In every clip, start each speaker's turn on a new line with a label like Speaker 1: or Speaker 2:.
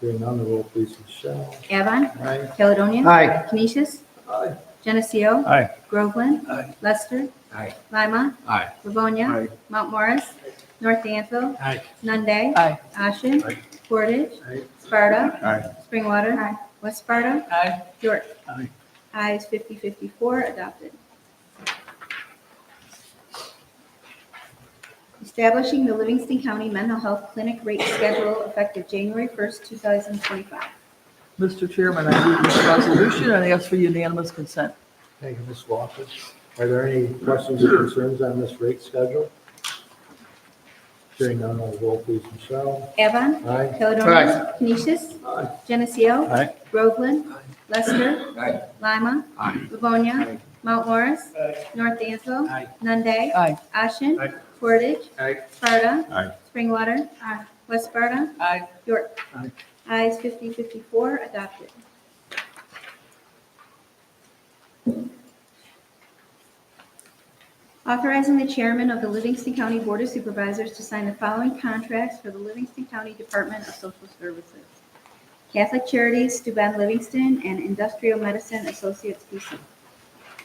Speaker 1: Hearing none, the roll please, Michelle.
Speaker 2: Avon.
Speaker 1: Aye.
Speaker 2: Caledonia.
Speaker 3: Aye.
Speaker 2: Canisius.
Speaker 1: Aye.
Speaker 2: Geneseo.
Speaker 4: Aye.
Speaker 2: Groveland.
Speaker 1: Aye.
Speaker 2: Lester.
Speaker 1: Aye.
Speaker 2: Lima.
Speaker 4: Aye.
Speaker 2: Livonia.
Speaker 4: Aye.
Speaker 2: Mount Morris. North Danville.
Speaker 4: Aye.
Speaker 2: Nunde.
Speaker 3: Aye.
Speaker 2: Ashen.
Speaker 4: Aye.
Speaker 2: Portage.
Speaker 1: Aye.
Speaker 2: Sparta.
Speaker 4: Aye.
Speaker 2: Springwater. West Sparta.
Speaker 3: Aye.
Speaker 2: York.
Speaker 4: Aye.
Speaker 2: Ayes 54 adopted. Establishing the Livingston County Mental Health Clinic Rate Schedule effective January 1st, 2025.
Speaker 3: Mr. Chairman, I move this resolution and ask for unanimous consent.
Speaker 1: Thank you, Ms. Walker. Are there any questions or concerns on this rate schedule? Hearing none, the roll please, Michelle.
Speaker 2: Avon.
Speaker 1: Aye.
Speaker 2: Caledonia. Canisius.
Speaker 1: Aye.
Speaker 2: Geneseo.
Speaker 4: Aye.
Speaker 2: Groveland. Lester. Lima. Livonia. Mount Morris. North Dansville.
Speaker 4: Aye.
Speaker 2: Nunde.
Speaker 3: Aye.
Speaker 2: Ashen.
Speaker 4: Aye.
Speaker 2: Portage.
Speaker 1: Aye.
Speaker 2: Sparta.
Speaker 4: Aye.
Speaker 2: Springwater. uh, West Sparta.
Speaker 3: Aye.
Speaker 2: York.
Speaker 4: Aye.
Speaker 2: Ayes 54 adopted. Authorizing the chairman of the Livingston County Board of Supervisors to sign the following contracts for the Livingston County Department of Social Services. Catholic Charities, Steuben Livingston, and Industrial Medicine Associates, PC.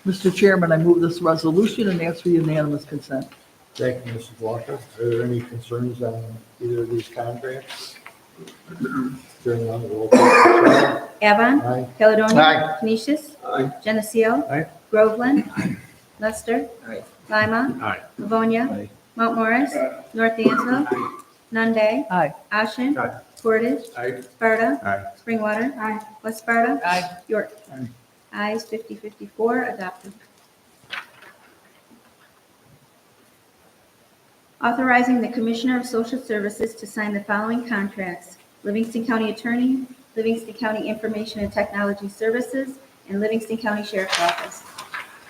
Speaker 3: Mr. Chairman, I move this resolution and ask for unanimous consent.
Speaker 1: Thank you, Mrs. Walker. Are there any concerns on either of these contracts? Hearing none, the roll please, Michelle.
Speaker 2: Avon.
Speaker 1: Aye.
Speaker 2: Caledonia.
Speaker 4: Aye.
Speaker 2: Canisius.
Speaker 1: Aye.
Speaker 2: Geneseo.
Speaker 4: Aye.
Speaker 2: Groveland. Lester.
Speaker 4: Aye.
Speaker 2: Lima.
Speaker 4: Aye.
Speaker 2: Livonia.
Speaker 4: Aye.
Speaker 2: Mount Morris. North Dansville. Nunde.
Speaker 3: Aye.
Speaker 2: Ashen.
Speaker 4: Aye.
Speaker 2: Portage.
Speaker 4: Aye.
Speaker 2: Sparta.
Speaker 4: Aye.
Speaker 2: Springwater. West Sparta.
Speaker 3: Aye.
Speaker 2: York.
Speaker 4: Aye.
Speaker 2: Ayes 54 adopted. Authorizing the Commissioner of Social Services to sign the following contracts. Livingston County Attorney, Livingston County Information and Technology Services, and Livingston County Sheriff's Office.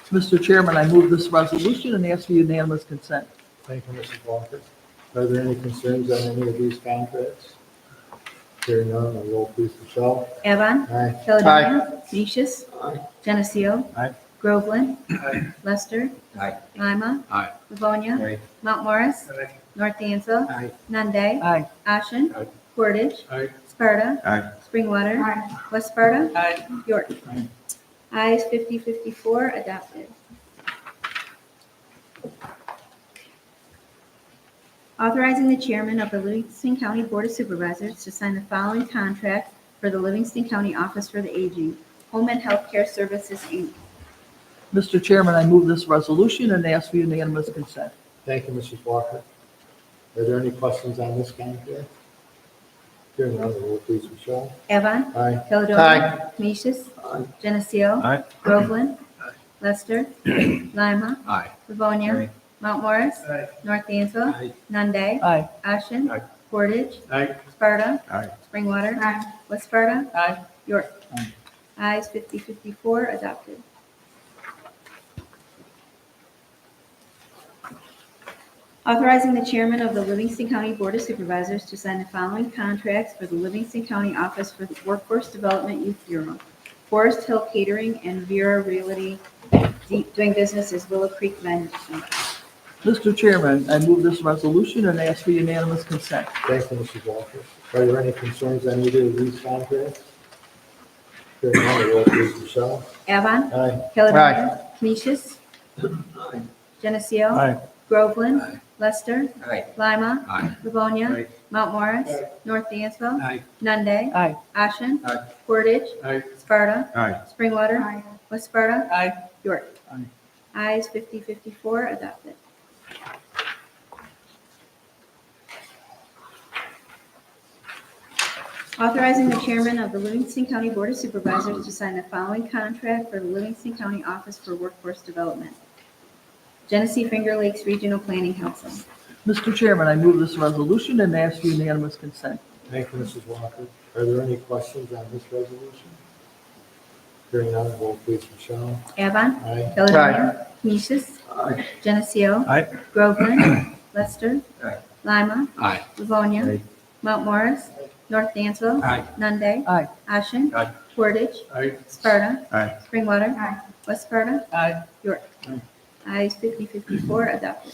Speaker 3: Mr. Chairman, I move this resolution and ask for unanimous consent.
Speaker 1: Thank you, Mrs. Walker. Are there any concerns on any of these contracts? Hearing none, the roll please, Michelle.
Speaker 2: Avon.
Speaker 1: Aye.
Speaker 2: Caledonia. Canisius.
Speaker 1: Aye.
Speaker 2: Geneseo.
Speaker 4: Aye.
Speaker 2: Groveland. Lester.
Speaker 4: Aye.
Speaker 2: Lima.
Speaker 4: Aye.
Speaker 2: Livonia.
Speaker 4: Aye.
Speaker 2: Mount Morris.
Speaker 4: Aye.
Speaker 2: North Dansville.
Speaker 4: Aye.
Speaker 2: Nunde.
Speaker 3: Aye.
Speaker 2: Ashen.
Speaker 4: Aye.
Speaker 2: Portage.
Speaker 4: Aye.
Speaker 2: Sparta.
Speaker 4: Aye.
Speaker 2: Springwater. West Sparta.
Speaker 3: Aye.
Speaker 2: York. Ayes 54 adopted. Authorizing the chairman of the Livingston County Board of Supervisors to sign the following contract for the Livingston County Office for the Aging, Home and Healthcare Services, Inc.
Speaker 3: Mr. Chairman, I move this resolution and ask for unanimous consent.
Speaker 1: Thank you, Mrs. Walker. Are there any questions on this contract? Hearing none, the roll please, Michelle.
Speaker 2: Avon.
Speaker 1: Aye.
Speaker 2: Caledonia. Canisius.
Speaker 1: Aye.
Speaker 2: Geneseo.
Speaker 4: Aye.
Speaker 2: Groveland. Lester. Lima.
Speaker 4: Aye.
Speaker 2: Livonia.
Speaker 4: Aye.
Speaker 2: Mount Morris.
Speaker 4: Aye.
Speaker 2: North Dansville.
Speaker 4: Aye.
Speaker 2: Nunde.
Speaker 3: Aye.
Speaker 2: Ashen.
Speaker 4: Aye.
Speaker 2: Portage.
Speaker 4: Aye.
Speaker 2: Sparta.
Speaker 4: Aye.
Speaker 2: Springwater. West Sparta.
Speaker 3: Aye.
Speaker 2: York. Ayes 54 adopted. Authorizing the chairman of the Livingston County Board of Supervisors to sign the following contracts for the Livingston County Office for the Workforce Development Youth Bureau, Forest Hill Catering, and Vera Realty, doing business as Willow Creek Management.
Speaker 3: Mr. Chairman, I move this resolution and ask for unanimous consent.
Speaker 1: Thank you, Mrs. Walker. Are there any concerns on either of these contracts? Hearing none, the roll please, Michelle.
Speaker 2: Avon.
Speaker 1: Aye.
Speaker 2: Caledonia. Canisius. Geneseo.
Speaker 4: Aye.
Speaker 2: Groveland. Lester.
Speaker 4: Aye.
Speaker 2: Lima.
Speaker 4: Aye.
Speaker 2: Livonia.
Speaker 4: Aye.
Speaker 2: Mount Morris. North Dansville.
Speaker 4: Aye.
Speaker 2: Nunde.
Speaker 3: Aye.
Speaker 2: Ashen.
Speaker 4: Aye.
Speaker 2: Portage.
Speaker 4: Aye.
Speaker 2: Sparta.
Speaker 4: Aye.
Speaker 2: Springwater. West Sparta.
Speaker 3: Aye.
Speaker 2: York.
Speaker 4: Aye.
Speaker 2: Ayes 54 adopted. Authorizing the chairman of the Livingston County Board of Supervisors to sign the following contract for the Livingston County Office for Workforce Development. Genesee Finger Lakes Regional Planning Council.
Speaker 3: Mr. Chairman, I move this resolution and ask for unanimous consent.
Speaker 1: Thank you, Mrs. Walker. Are there any questions on this resolution? Hearing none, the roll please, Michelle.
Speaker 2: Avon.
Speaker 1: Aye.
Speaker 2: Caledonia. Canisius.
Speaker 1: Aye.
Speaker 2: Geneseo.
Speaker 4: Aye.
Speaker 2: Groveland. Lester.
Speaker 4: Aye.
Speaker 2: Lima.
Speaker 4: Aye.
Speaker 2: Livonia.
Speaker 4: Aye.
Speaker 2: Mount Morris. North Dansville.
Speaker 4: Aye.
Speaker 2: Nunde.
Speaker 3: Aye.
Speaker 2: Ashen.
Speaker 4: Aye.
Speaker 2: Portage.
Speaker 4: Aye.
Speaker 2: Sparta.
Speaker 4: Aye.
Speaker 2: Springwater. West Sparta.
Speaker 3: Aye.
Speaker 2: York. Ayes 54 adopted.